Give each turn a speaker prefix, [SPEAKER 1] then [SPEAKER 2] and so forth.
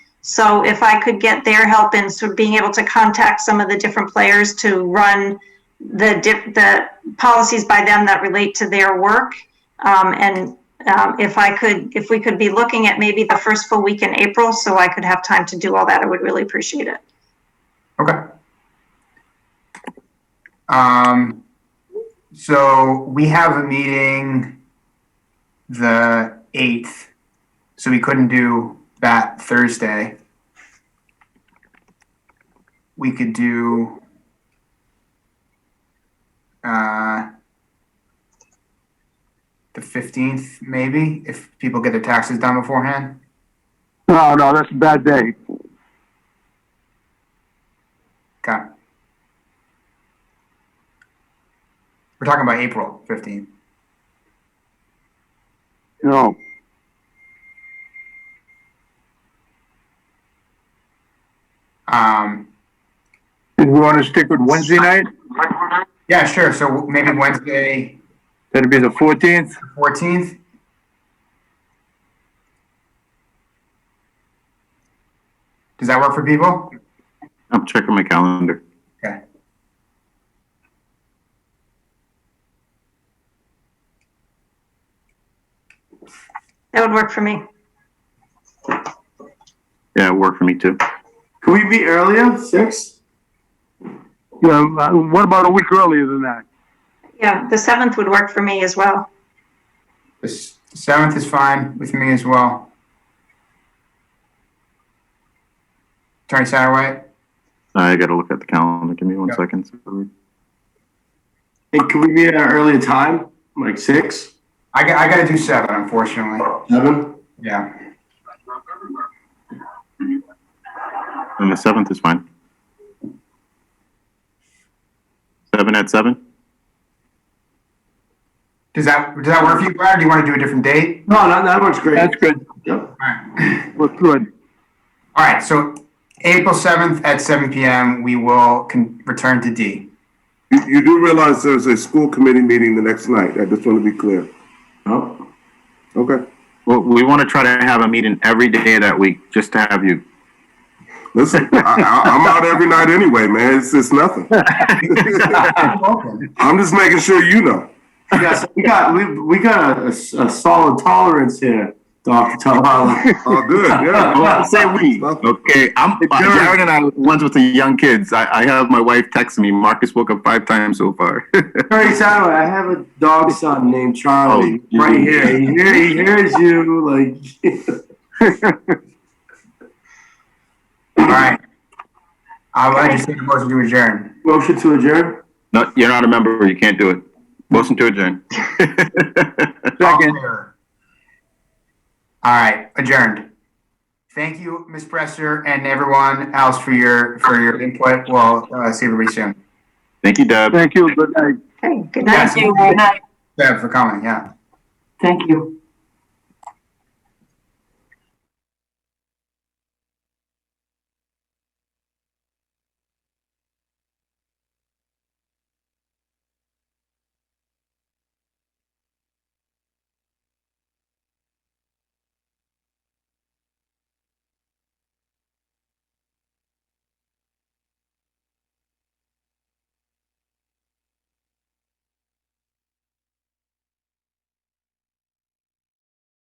[SPEAKER 1] So if I could get their help in sort of being able to contact some of the different players to run the dip, the policies by them that relate to their work. Um, and, um, if I could, if we could be looking at maybe the first full week in April, so I could have time to do all that, I would really appreciate it.
[SPEAKER 2] Okay. Um, so we have a meeting the eighth, so we couldn't do that Thursday. We could do, uh, the fifteenth, maybe, if people get their taxes done beforehand.
[SPEAKER 3] No, no, that's a bad day.
[SPEAKER 2] Okay. We're talking about April fifteenth.
[SPEAKER 3] No.
[SPEAKER 2] Um,
[SPEAKER 3] Did we want to stick with Wednesday night?
[SPEAKER 2] yeah, sure. So maybe Wednesday,
[SPEAKER 3] That'd be the 14th?
[SPEAKER 2] fourteenth. Does that work for people?
[SPEAKER 4] I'm checking my calendar.
[SPEAKER 2] Okay.
[SPEAKER 1] That would work for me.
[SPEAKER 4] Yeah, it worked for me too.
[SPEAKER 5] Can we be earlier? Six?
[SPEAKER 3] Yeah, uh, what about a week earlier than that?
[SPEAKER 1] Yeah, the seventh would work for me as well.
[SPEAKER 2] The s- seventh is fine with me as well. Attorney Satterwhite?
[SPEAKER 4] I gotta look at the calendar. Give me one
[SPEAKER 2] Yeah.
[SPEAKER 4] second.
[SPEAKER 5] Hey, can we be at an earlier time? Like six?
[SPEAKER 2] I got, I gotta do seven, unfortunately.
[SPEAKER 5] Seven?
[SPEAKER 2] Yeah.
[SPEAKER 4] And the seventh is fine. Seven at seven?
[SPEAKER 2] Does that, does that work for you, Brad? Or do you wanna do a different date?
[SPEAKER 5] No, that, that works great.
[SPEAKER 3] That's good.
[SPEAKER 5] Yep.
[SPEAKER 2] All right.
[SPEAKER 3] Looks good.
[SPEAKER 2] All right, so April 7th at seven PM, we will con- return to D.
[SPEAKER 6] You you do realize there's a school committee meeting the next night. I just want to be clear.
[SPEAKER 5] Oh.
[SPEAKER 6] Okay,
[SPEAKER 4] Well, we wanna try to have a meeting every day that week, just to have you.
[SPEAKER 6] listen, I, I, I'm out every night anyway, man. It's it's nothing. I'm just making sure you know.
[SPEAKER 5] Yes, we got, we, we got a, a s- a solid tolerance here, Dr. Talala.
[SPEAKER 6] Oh, good.
[SPEAKER 4] Oh,
[SPEAKER 6] Yeah.
[SPEAKER 4] I say we. Okay, I'm, Jared and I were ones with the young kids. I, I have my wife text me, Marcus woke up five times so far.
[SPEAKER 5] Attorney Satterwhite, I have a dog son named Charlie,
[SPEAKER 4] Oh, you-
[SPEAKER 5] right here. He, hear, he hears you, like,
[SPEAKER 2] All right. I would like to take a motion to adjourn.
[SPEAKER 5] motion to adjourn?
[SPEAKER 4] No, you're not a member, you can't do it. Motion to adjourn.
[SPEAKER 3] Second.
[SPEAKER 2] All right, adjourned. Thank you, Ms. Presser and everyone else for your, for your input. We'll, uh, see everybody soon.
[SPEAKER 4] Thank you, Deb.
[SPEAKER 3] Thank you. Good night.
[SPEAKER 1] Okay, good night.
[SPEAKER 2] Yes, Deb, for coming, yeah.
[SPEAKER 7] Thank you.